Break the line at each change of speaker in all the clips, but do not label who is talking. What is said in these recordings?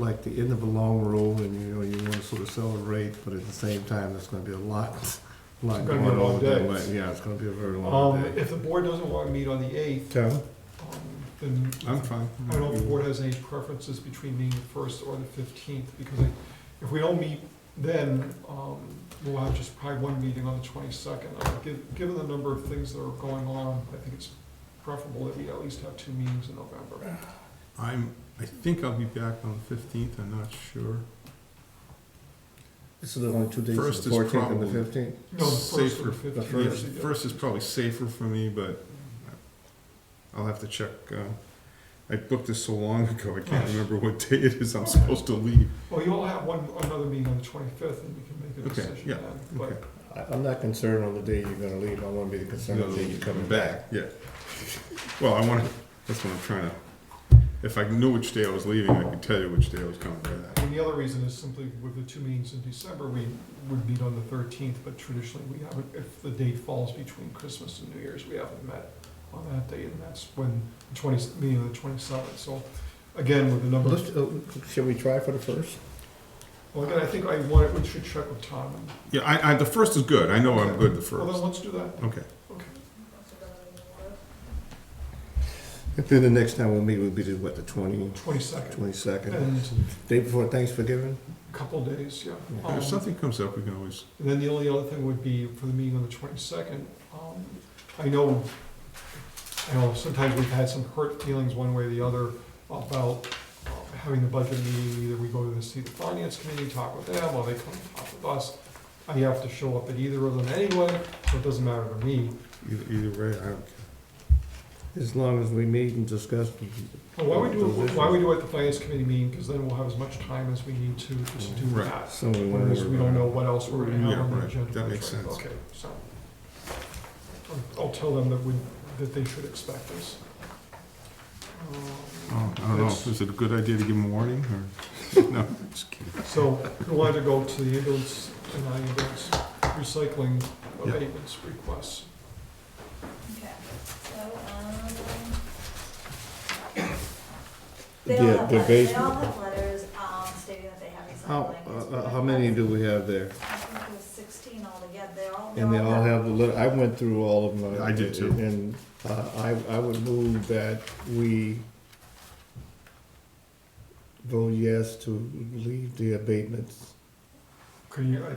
like the end of a long road and you know, you wanna sort of celebrate, but at the same time, there's gonna be a lot, lot going
It's gonna be a long
on. that
day.
way. Yeah, it's gonna be a very long
Um,
day.
if the board doesn't want to meet on the eighth, um,
Kevin?
then
I'm fine.
I don't know if the board has any preferences between meeting the first or the fifteenth, because I- if we don't meet then, um, we'll have just probably one meeting on the twenty-second. Uh, Given the number of things that are going on, I think it's preferable that we at least have two meetings in November.
I'm, I think I'll be back on the fifteenth, I'm not sure.
So there's only two
days, the First is 14th and the probably-
fifteenth?
No, the first or
Safer.
the
The
fifteenth.
first-
is the-
First is probably safer for me, but I'll have to check. uh, I booked this so long ago, I can't remember what day it is I'm supposed to leave.
Well, you all have one, another meeting on the twenty-fifth, and we can make a
Okay,
decision
yeah,
then,
okay.
but
I'm not concerned on the day you're gonna leave, I wanna be concerned
Yeah. Well, I wanna, that's what I'm trying to, if I knew which day I was leaving, I could tell you which day I was coming back.
And the other reason is simply with the two meetings in December, we would meet on the thirteenth, but traditionally, we haven't, if the date falls between Christmas and New Year's, we haven't met on that date, and that's when the twenty, meeting of the twenty-seventh, so again, with the number, of-
uh, Shall we try for the first?
well, again, I think I want, we should check with Tom. and-
Yeah, I, I, the first is good, I know I'm good the
Well, then
first.
let's do that,
Okay,
okay.
Then the next time we'll meet will be the, what, the twenty,
Twenty-second,
twenty-second,
and
day before Thanksgiving?
a couple days, yeah.
Yeah.
if
Um,
something comes up, we can always,
And then the only other thing would be for the meeting on the twenty-second, um, I know, I know sometimes we've had some hurt feelings one way or the other about uh, having the budget meeting, either we go to the see the finance committee, talk with them, or they come talk with us. I have to show up at either of them anyway, so it doesn't matter to me.
either, either way, I don't care.
As long as we meet and discuss.
But why we do, it- why we do it at the finance committee meeting, because then we'll have as much time as we need to just do
Right.
that.
So we wanna.
Whereas we don't know what else we're gonna have on
Yeah,
the
right.
agenda.
That makes sense.
Okay, so. I'll- I'll tell them that we, that they should expect this.
Oh, I don't know,
It's-
is it a good idea to give them warning, or, no, just kidding.
So we wanted to go to the ambulance and ambulance recycling
Yeah.
abatements requests.
Okay, so, um.
The-
They all have
the
letters, they
basement.
all have letters, um, stating that they have recycling.
How, uh, uh, how many do we have there?
I think there's sixteen altogether, they all.
And they all have the, lit- I went through all of them.
I did too.
And uh, I, I would move that we vote yes to leave the abatements.
Can you, I-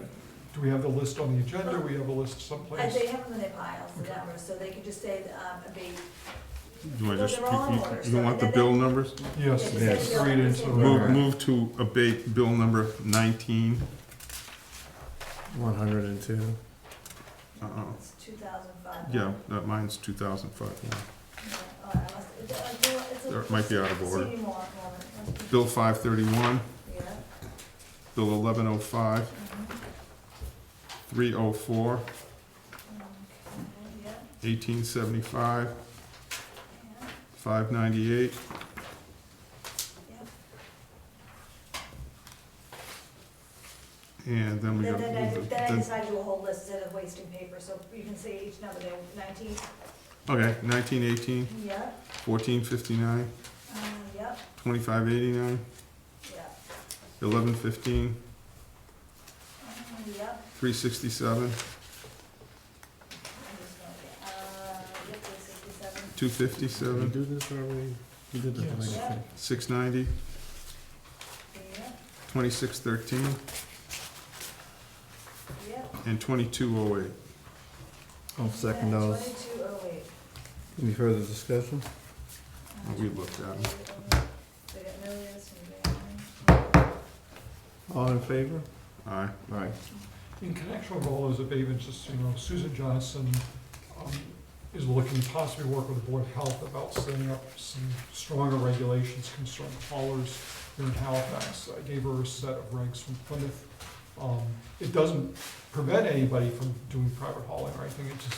do we have the list on the agenda? We have a list
Uh,
someplace.
They have them in their piles, the numbers, so they could just say, um, abate.
Do I
Well,
just,
they're all in order,
you- you,
so
you want the
then
bill
they-
numbers?
Yes,
Yeah,
just
just
say
read
bill
into
numbers.
the
Move,
Alright.
move to abate bill number nineteen.
One hundred and two.
Uh-uh,
It's two thousand five.
yeah, that mine's two thousand five. Or it might be out of order. Bill five thirty-one,
Yeah,
bill eleven oh five,
mhm,
three oh four,
okay, yeah,
eighteen seventy-five,
yeah,
five ninety-eight,
yeah.
and then we
Then,
gotta
then I,
move
then I
it.
decided to do a whole list instead of wasting paper, so you can say each number there, nineteen,
Okay, nineteen eighteen,
yep,
fourteen fifty-nine,
uh, yep,
twenty-five eighty-nine,
yep,
eleven fifteen,
uh, yep.
three sixty-seven,
I'm just gonna get, Uh, yep, there's sixty-seven,
two
Did we
fifty-seven,
do this already? We did this already.
Yes.
six ninety,
yep,
twenty-six thirteen,
yep.
and twenty-two oh eight.
I'll second those.
Twenty-two oh eight.
Any further discussion?
We looked at 'em.
They got no list, and they got
All in favor?
Aye.
Right.
In connection with all those abatements, just, you know, Susan Johnson um, is looking to possibly work with the Board of Health about setting up some stronger regulations concerning haulers here in Halifax. I gave her a set of regs from Plymouth. Um, It doesn't prevent anybody from doing private hauling or anything, it just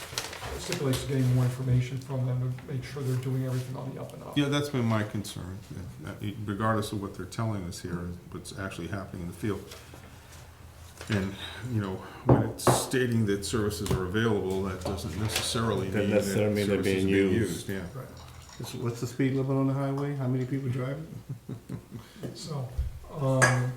stipulates getting more information from them to make sure they're doing everything on the up and up.
Yeah, that's been my concern, that- that regardless of what they're telling us here, what's actually happening in the field. And, you know, when it's stating that services are available, that doesn't necessarily
Doesn't
mean that services are
necessarily mean they're being
being
used.
used, yeah.
Right.
What's the speed limit on the highway? How many people drive it?
So, um, um,